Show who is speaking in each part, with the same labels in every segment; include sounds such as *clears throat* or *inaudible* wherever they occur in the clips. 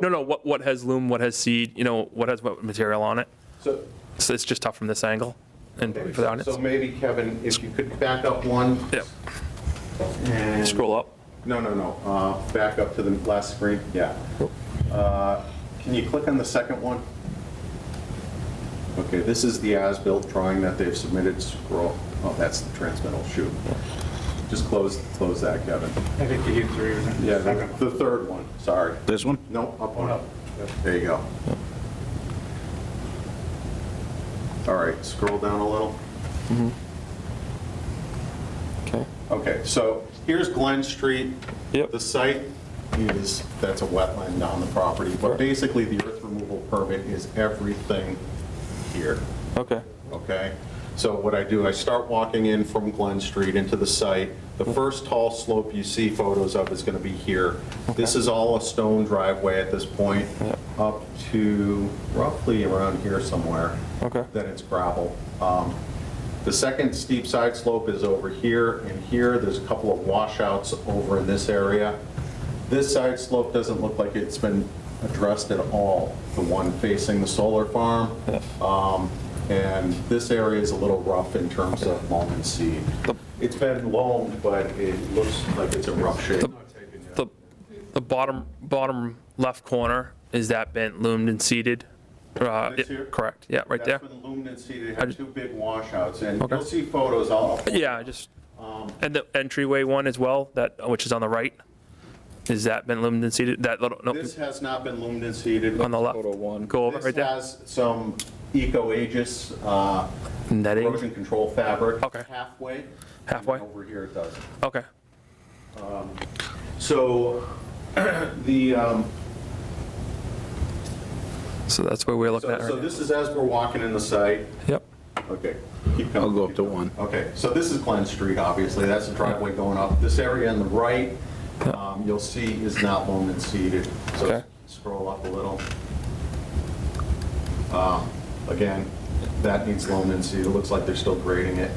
Speaker 1: No, no, what, what has loom, what has seed, you know, what has what material on it?
Speaker 2: So,
Speaker 1: So it's just tough from this angle and for the audience.
Speaker 2: so maybe Kevin, if you could back up one
Speaker 1: Yep,
Speaker 2: and.
Speaker 1: scroll up.
Speaker 2: No, no, no, uh, back up to the last screen, yeah. Uh, Can you click on the second one? Okay, this is the as-built drawing that they've submitted, scroll, oh, that's the transmittal, shoot. Just close, close that, Kevin.
Speaker 3: I think you hit three. wasn't it?
Speaker 2: Yeah, the
Speaker 3: Second.
Speaker 2: the third one, sorry.
Speaker 4: This one?
Speaker 2: No, up one. There you go. All right, scroll down a little.
Speaker 1: Okay.
Speaker 2: Okay, so here's Glen Street.
Speaker 1: Yep.
Speaker 2: The site is, that's a wetland on the property, but basically the earth removal permit is everything here,
Speaker 1: Okay.
Speaker 2: okay? So what I do, I start walking in from Glen Street into the site. The first tall slope you see photos of is going to be here. This is all a stone driveway at this point, up to roughly around here somewhere.
Speaker 1: Okay.
Speaker 2: Then it's gravel. Um, The second steep side slope is over here and here. There's a couple of washouts over in this area. This side slope doesn't look like it's been addressed at all, the one facing the solar farm. Um, And this area is a little rough in terms of loam and seed. It's been loamed, but it looks like it's in rough shape.
Speaker 1: The, the bottom, bottom left corner, is that bent, loomed and seeded? Uh,
Speaker 2: This
Speaker 1: yeah,
Speaker 2: here?
Speaker 1: Correct, yeah, right there.
Speaker 2: That's been loomed and seeded. It
Speaker 1: I
Speaker 2: had
Speaker 1: just-
Speaker 2: two big washouts, and
Speaker 1: Okay.
Speaker 2: you'll see photos all of
Speaker 1: Yeah, I just,
Speaker 2: Um,
Speaker 1: and the entryway one as well, that, which is on the right, is that been loomed and seeded? That little, no,
Speaker 2: This has not been loomed and seeded.
Speaker 1: on the left?
Speaker 5: Photo one.
Speaker 1: Go over right
Speaker 2: This
Speaker 1: there,
Speaker 2: has some Eco Aegis uh,
Speaker 1: netting,
Speaker 2: erosion control fabric.
Speaker 1: Okay.
Speaker 2: Halfway. and
Speaker 1: Halfway.
Speaker 2: Over here it doesn't.
Speaker 1: okay,
Speaker 2: So *clears throat* the, um,
Speaker 1: so that's where we're looking
Speaker 2: so
Speaker 1: at
Speaker 2: so
Speaker 1: right now.
Speaker 2: this is as we're walking in the site.
Speaker 1: Yep,
Speaker 2: Okay. keep going,
Speaker 4: I'll go up
Speaker 2: keep
Speaker 4: to one.
Speaker 2: going. Okay, so this is Glen Street, obviously, that's the driveway going up. This area on the right, um, you'll see is not loam and seeded. So
Speaker 1: Okay.
Speaker 2: scroll up a little. Um, Again, that needs loam and seed, it looks like they're still grading it.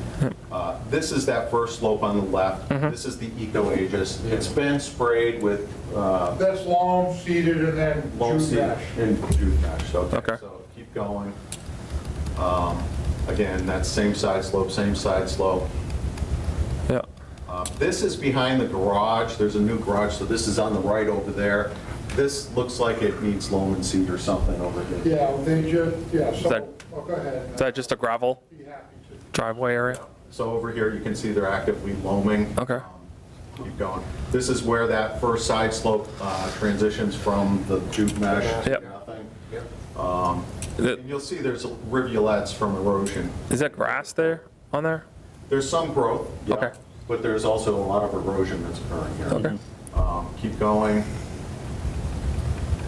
Speaker 2: Uh, This is that first slope on the left,
Speaker 1: Mm-hmm.
Speaker 2: this is the Eco Aegis. It's been sprayed with uh,
Speaker 3: That's long seated and then
Speaker 2: loam
Speaker 3: June
Speaker 2: seed
Speaker 3: dash.
Speaker 2: and June ash, okay.
Speaker 1: Okay.
Speaker 2: So keep going. Um, Again, that same side slope, same side slope.
Speaker 1: yeah,
Speaker 2: Uh, This is behind the garage, there's a new garage, so this is on the right over there. This looks like it needs loam and seed or something over here.
Speaker 3: Yeah, they just, yeah, so,
Speaker 1: that-
Speaker 3: oh, go ahead.
Speaker 1: is that just a gravel
Speaker 3: Be happy to.
Speaker 1: driveway area?
Speaker 2: So over here, you can see they're actively loaming.
Speaker 1: Okay.
Speaker 2: Keep going. This is where that first side slope uh, transitions from the jute mesh. to
Speaker 1: Yep.
Speaker 2: nothing.
Speaker 1: Th-
Speaker 2: And you'll see there's rivulets from erosion.
Speaker 1: Is that grass there, on there?
Speaker 2: There's some growth. yeah,
Speaker 1: Okay.
Speaker 2: But there's also a lot of erosion that's occurring here.
Speaker 1: Okay.
Speaker 2: Um, Keep going.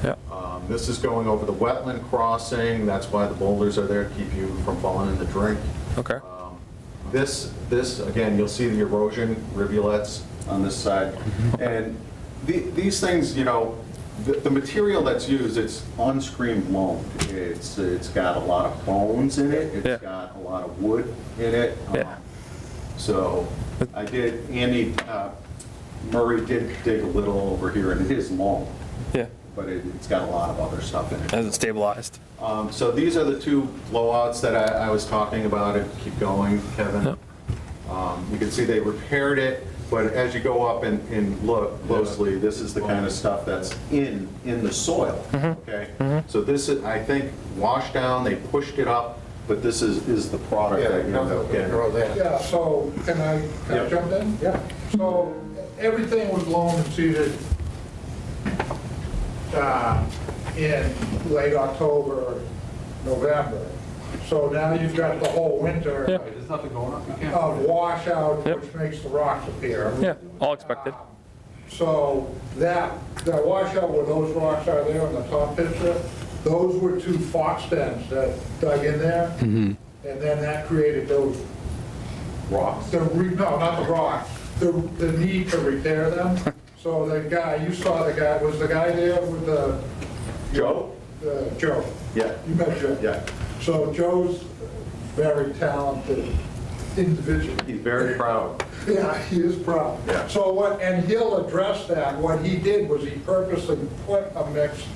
Speaker 1: Yeah,
Speaker 2: Um, This is going over the wetland crossing, that's why the boulders are there, to keep you from falling in the drink.
Speaker 1: okay,
Speaker 2: This, this, again, you'll see the erosion rivulets on this side.
Speaker 1: Mm-hmm.
Speaker 2: And the- these things, you know, the, the material that's used, it's unscreened loam. It's, it's got a lot of bones in it,
Speaker 1: Yeah.
Speaker 2: it's got a lot of wood in it. Um,
Speaker 1: Yeah.
Speaker 2: So I did, Andy uh, Murray did dig a little over here in his loam,
Speaker 1: yeah,
Speaker 2: but it- it's got a lot of other stuff in it.
Speaker 1: hasn't stabilized.
Speaker 2: Um, So these are the two blowouts that I, I was talking about, and keep going, Kevin. Um, You can see they repaired it, but as you go up and, and look closely, this is the kind of stuff that's in, in the soil, okay? So this is, I think, washed down, they pushed it up, but this is, is the product that you end up getting.
Speaker 3: Yeah, so, can I, can
Speaker 2: Yeah.
Speaker 3: I jump in? Yeah. So, everything was loam and seeded uh, in late October, November. So now you've got the whole winter
Speaker 1: Yeah.
Speaker 3: of washout, which makes the rocks appear.
Speaker 1: Yeah, all expected.
Speaker 3: So that, that washout where those rocks are there on the top picture, those were two fox dens that dug in there. And then that created those
Speaker 2: Rocks.
Speaker 3: the, re- no, not the rock, the, the need to repair them. So the guy, you saw the guy, was the guy there with the,
Speaker 2: Joe?
Speaker 3: the- Joe?
Speaker 2: Yeah.
Speaker 3: You met Joe?
Speaker 2: Yeah.
Speaker 3: So Joe's very talented individual.
Speaker 2: He's very proud.
Speaker 3: Yeah, he is proud.
Speaker 2: Yeah.
Speaker 3: So what, and he'll address that. What he did was he purposely put a mix